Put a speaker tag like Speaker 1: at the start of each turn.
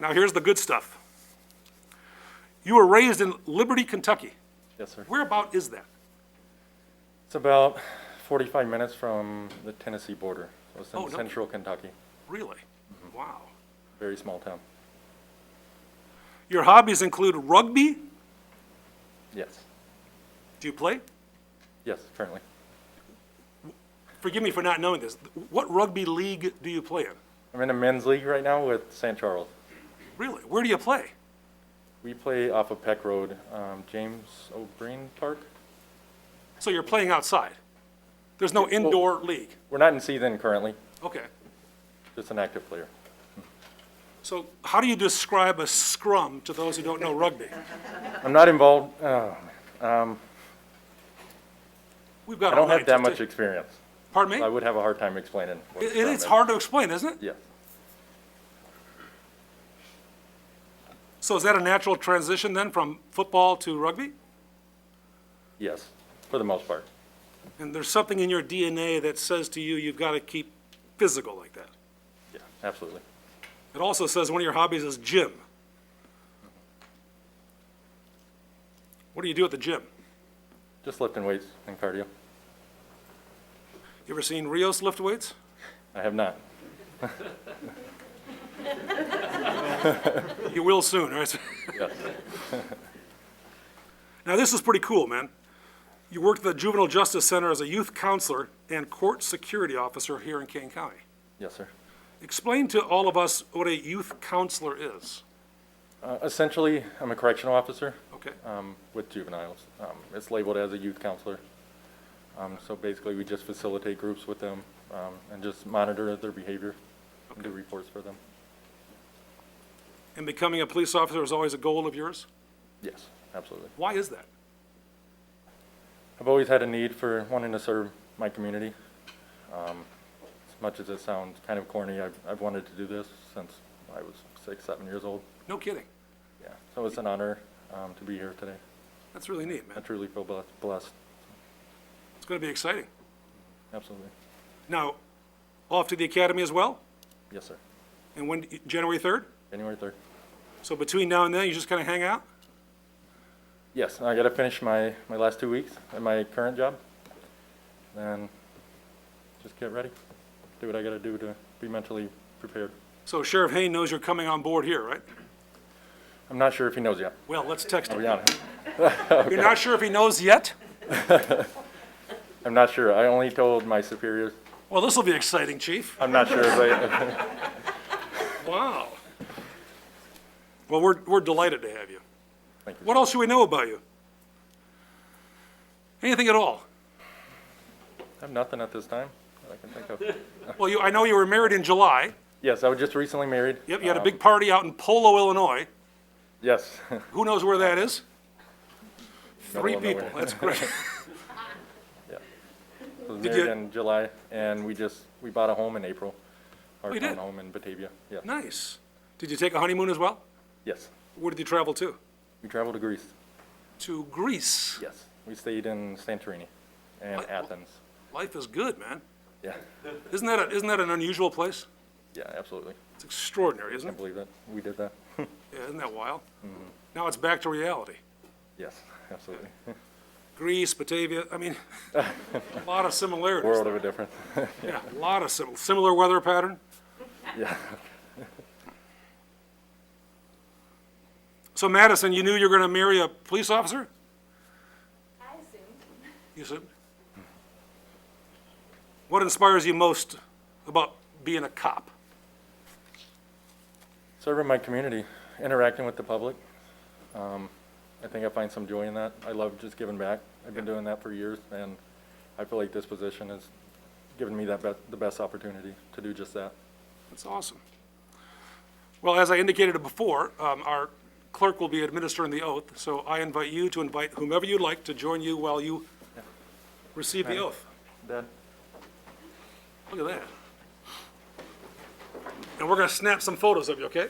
Speaker 1: Now, here's the good stuff. You were raised in Liberty, Kentucky.
Speaker 2: Yes, sir.
Speaker 1: Where about is that?
Speaker 2: It's about 45 minutes from the Tennessee border. So It's
Speaker 1: Oh,
Speaker 2: in
Speaker 1: no.
Speaker 2: central Kentucky,
Speaker 1: Really? Wow.
Speaker 2: very small town.
Speaker 1: Your hobbies include rugby.
Speaker 2: Yes,
Speaker 1: Do you play?
Speaker 2: yes, currently.
Speaker 1: Forgive me for not knowing this. What rugby league do you play in?
Speaker 2: I'm in a men's league right now with St. Charles.
Speaker 1: Really? Where do you play?
Speaker 2: We play off of Peck Road, um, James O'Brien Park.
Speaker 1: So you're playing outside. There's no indoor league.
Speaker 2: We're not in season currently,
Speaker 1: Okay.
Speaker 2: just an active player.
Speaker 1: So how do you describe a scrum to those who don't know rugby? Uh-huh.
Speaker 2: I'm not involved, oh,
Speaker 1: We've got
Speaker 2: I
Speaker 1: all
Speaker 2: don't
Speaker 1: night.
Speaker 2: have that
Speaker 1: just
Speaker 2: much
Speaker 1: to-
Speaker 2: experience.
Speaker 1: Pardon me?
Speaker 2: I would have a hard time explaining. what
Speaker 1: It-
Speaker 2: scrum
Speaker 1: It is
Speaker 2: is.
Speaker 1: hard to explain, isn't it?
Speaker 2: Yes,
Speaker 1: So is that a natural transition then from football to rugby?
Speaker 2: yes, for the most part.
Speaker 1: And there's something in your DNA that says to you, you've got to keep physical like that.
Speaker 2: Yeah, absolutely.
Speaker 1: It also says one of your hobbies is gym. What do you do at the gym?
Speaker 2: Just lifting weights and cardio.
Speaker 1: You ever seen Rios lift weights?
Speaker 2: I have not.
Speaker 1: You will soon, right?
Speaker 2: Yes,
Speaker 1: Now, this is pretty cool, man. You worked at the Juvenile Justice Center as a youth counselor and court security officer here in Kane County.
Speaker 2: yes, sir.
Speaker 1: Explain to all of us what a youth counselor is,
Speaker 2: Uh, Essentially, I'm a correctional officer
Speaker 1: okay?
Speaker 2: um, with juveniles. Um, It's labeled as a youth counselor. Um, So basically, we just facilitate groups with them um, and just monitor their behavior and do reports for them.
Speaker 1: And becoming a police officer is always a goal of yours?
Speaker 2: Yes, absolutely.
Speaker 1: Why is that?
Speaker 2: I've always had a need for wanting to serve my community. Um, As much as it sounds kind of corny, I've I've wanted to do this since I was six, seven years old.
Speaker 1: No kidding.
Speaker 2: Yeah, so it's an honor um, to be here today.
Speaker 1: That's really neat,
Speaker 2: I
Speaker 1: man.
Speaker 2: truly feel bless- blessed,
Speaker 1: It's going to be exciting.
Speaker 2: absolutely.
Speaker 1: Now, off to the academy as well?
Speaker 2: Yes, sir.
Speaker 1: And when, January 3rd?
Speaker 2: January 3rd.
Speaker 1: So between now and then, you just kind of hang out?
Speaker 2: Yes, I gotta finish my, my last two weeks at my current job. Then just get ready, do what I gotta do to be mentally prepared.
Speaker 1: So Sheriff Hayne knows you're coming on board here, right?
Speaker 2: I'm not sure if he knows yet,
Speaker 1: Well, let's text
Speaker 2: I'll
Speaker 1: him.
Speaker 2: be honest.
Speaker 1: You're not sure if he knows yet?
Speaker 2: I'm not sure, I only told my superiors,
Speaker 1: Well, this will be exciting, Chief.
Speaker 2: I'm not sure, but
Speaker 1: Wow. Well, we're, we're delighted to have you.
Speaker 2: Thank you.
Speaker 1: What else should we know about you? Anything at all?
Speaker 2: I have nothing at this time that I can think of.
Speaker 1: Well, you, I know you were married in July.
Speaker 2: Yes, I was just recently married.
Speaker 1: Yep, you had a
Speaker 2: Um,
Speaker 1: big party out in Polo, Illinois.
Speaker 2: Yes.
Speaker 1: Who knows where that is? Three
Speaker 2: of
Speaker 1: people,
Speaker 2: nowhere.
Speaker 1: that's great.
Speaker 2: I was
Speaker 1: Did
Speaker 2: married
Speaker 1: you-
Speaker 2: in July, and we just, we bought a home in April. Our
Speaker 1: Oh, you
Speaker 2: town
Speaker 1: did?
Speaker 2: home in Batavia, yes,
Speaker 1: Nice. Did you take a honeymoon as well?
Speaker 2: yes.
Speaker 1: Where did you travel to?
Speaker 2: We traveled to Greece.
Speaker 1: To Greece.
Speaker 2: Yes, we stayed in Santorini and
Speaker 1: What-
Speaker 2: Athens.
Speaker 1: Life is good, man.
Speaker 2: Yeah,
Speaker 1: Isn't that, a- isn't that an unusual place?
Speaker 2: yeah, absolutely.
Speaker 1: It's extraordinary, isn't
Speaker 2: Can't
Speaker 1: it?
Speaker 2: believe that we did that.
Speaker 1: Yeah, isn't that wild? Now it's back to reality.
Speaker 2: Yes, absolutely.
Speaker 1: Greece, Batavia, I mean, a lot of similarities.
Speaker 2: World of a difference.
Speaker 1: Yeah, a lot of sim- similar weather pattern.
Speaker 2: Yeah,
Speaker 1: So Madison, you knew you were going to marry a police officer?
Speaker 3: I assume.
Speaker 1: You said? What inspires you most about being a cop?
Speaker 2: serving my community, interacting with the public. Um, I think I find some joy in that. I love just giving back. I've been doing that for years, and I feel like this position has given me that be- the best opportunity to do just that.
Speaker 1: That's awesome. Well, as I indicated before, um, our clerk will be administering the oath, so I invite you to invite whomever you'd like to join you while you receive the oath.
Speaker 2: Dad?
Speaker 1: Look at that. And we're going to snap some photos of you, okay?